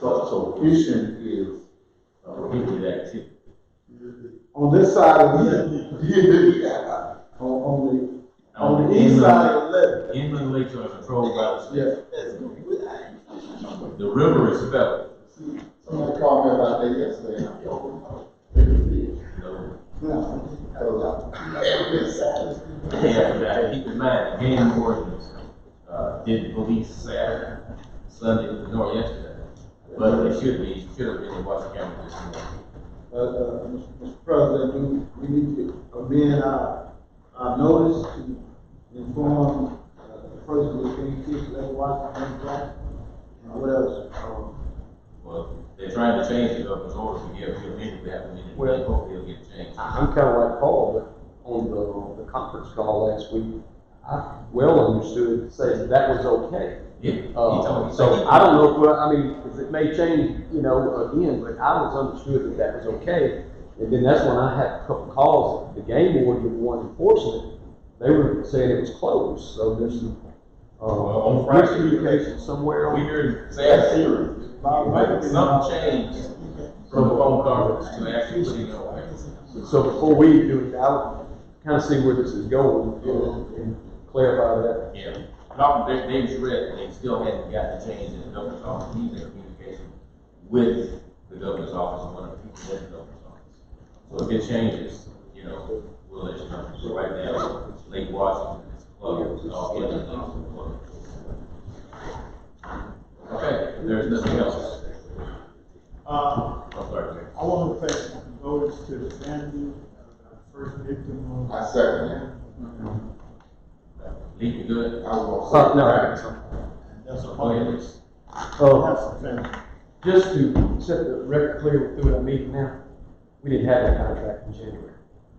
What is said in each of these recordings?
So, so fishing is, uh, Repeated activity. on this side of the, yeah, on, on the, on the east inland- side of the left. Inland lakes are controlled by the state. Yeah, The river is federal. somebody called me about that yesterday. so- Yeah. Yeah, but I keep in mind, the game wardens, uh, did police Saturday, Sunday, nor yesterday. But they should be, should have been in Washington County this morning. Uh, uh, Mr. President, we, we need to amend our, our notice to inform, uh, the person who's being accused of that Washington Black. And what else? Um, Well, they're trying to change it up in order to give, give me, we have a meeting, Well- uh-huh. hopefully it'll get changed. I- I'm kind of like Paul, but on the, on the conference call last week, I well understood, say that that was okay. Yeah, he told Uh, me. so I don't know, if, well, I mean, because it may change, you know, again, but I was understood that that was okay. And then that's when I had a couple calls, the game warden, the one enforcement, they were saying it was closed, so there's, Well, uh, on Friday- miscommunication somewhere. We on- heard Saturday. But some change from the phone conference to actually putting it on. So before we do it, I'll kind of see where this is going uh, and clarify that. Yeah, problem, they, they was read, they still hadn't got the change in the governor's office, he's in communication with the governor's office, and one of the people in the governor's office. So if it changes, you know, we'll let you know, so right now, Lake Washington is closed, all the other lakes are closed. Okay, if there's nothing else, Uh, I'm sorry, Mayor. I want to pay condolences to the family, uh, first victim of. I second that. Lee, you I good? was Uh, gonna say. no. That's a Oh, Go ahead, family. Lee. Uh, That's a family. just to set the record clear through our meeting now, we didn't have that contract in January.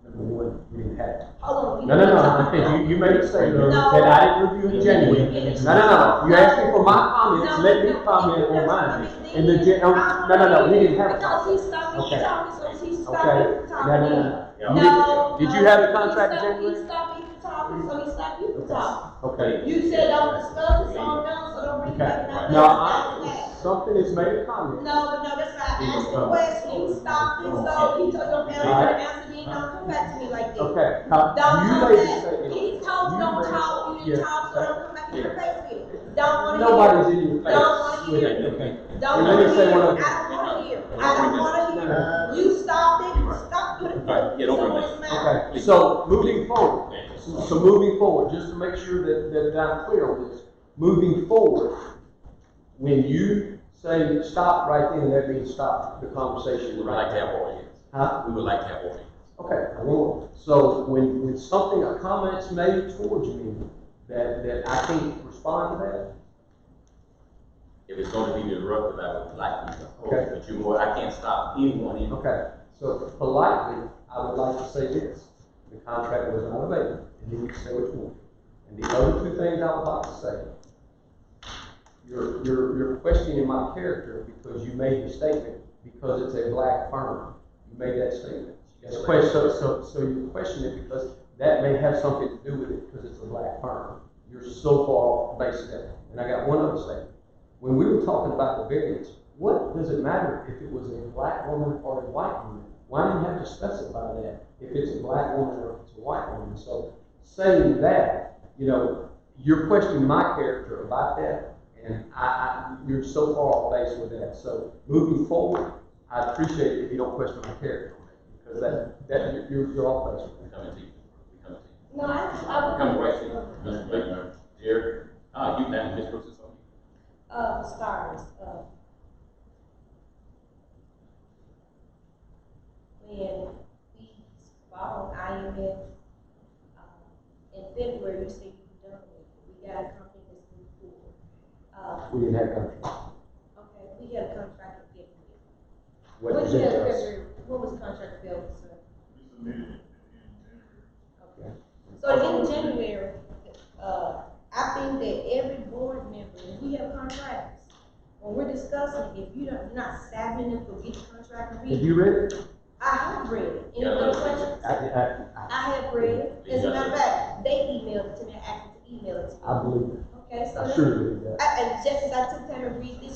Number one, we didn't have it. Hold on. No, no, no, you, you made a statement that I didn't review in January. No, no, no, you asked me for my comments, let me comment on mine. And the, gen- oh, no, no, no, we didn't have a Because contract. he stopped me Okay. from talking, so he stopped me Okay, no, no, from talking. no, Yeah. No. Did you no, have a he contract in stopped- January? He stopped me from talking, so he stopped you from talking. no. okay. You said don't discuss it, so I'm done, so don't bring Okay, back nothing. now, that's not I, that. something is made a comment. No, but no, that's not, He I asked was the done. question, he stopped it, so he told your family, Alright. don't answer me, don't come back to me like this. Oh. Okay, Don't now, come you made a back, statement. he told You you don't made- talk, you yeah. didn't talk, so don't come back in your face with it. Don't wanna hear. Nobody's in your it. Don't face wanna with hear it, it. okay? Don't Let me wanna say hear, one it. other- I don't wanna hear, it. I don't wanna hear. it. You stopped it, stop, put it, Right, yeah, put don't worry. someone's mouth. Okay, so moving forward, so so moving forward, just to make sure that, that I'm clear on this, moving forward, when you say stop right then, that means stop the conversation right now. more meetings. Huh? We would like to have more meetings. Okay, I will. So when, when something, a comment's made towards me that, that I can't respond to that, If it's gonna be disruptive, I would like you to hold, Okay. it, but you more, I can't stop anyone in Okay, so politely, I would like to say this, the contract was not available, and you can say what you want. And the other two things I would like to say, you're, you're, you're questioning my character because you made the statement, because it's a black firm, you made that statement. That's question, so, so, so you question it because that may have something to do with it, because it's a black firm. You're so far based that, and I got one other statement. When we were talking about the variance, what does it matter if it was a black woman or a white woman? Why do you have to specify that if it's a black woman or if it's a white woman? So saying that, you know, you're questioning my character about that, and I, I, you're so far off base with that. So moving forward, I appreciate it if you don't question my character, because that, that, you're- you're, you're off base with that. Coming to you, We're coming to you. No, I, I would. Coming right to you, Mr. Blakemore. Dear, uh, you, now, Ms. Brooks is on you. Uh, stars, uh. When we followed IMF, uh, in February, you said you were done with it, we got a company that's moved forward. Uh, We didn't have contract. okay, we had a contract in February. What What does you it had do? February, what was contract available, sir? Yeah. Okay. So in January, uh, I think that every board member, if we have contracts, when we're discussing, if you don't, not savvy enough to get the contract and Have read, you read it? I have read it. Any Yeah, I other read it. questions? I, I, I have read it. As a matter of fact, they emailed it to me, I asked them to email it to me. I believe it. Okay, so, I that's- surely believe that. I, and just as I took time to read this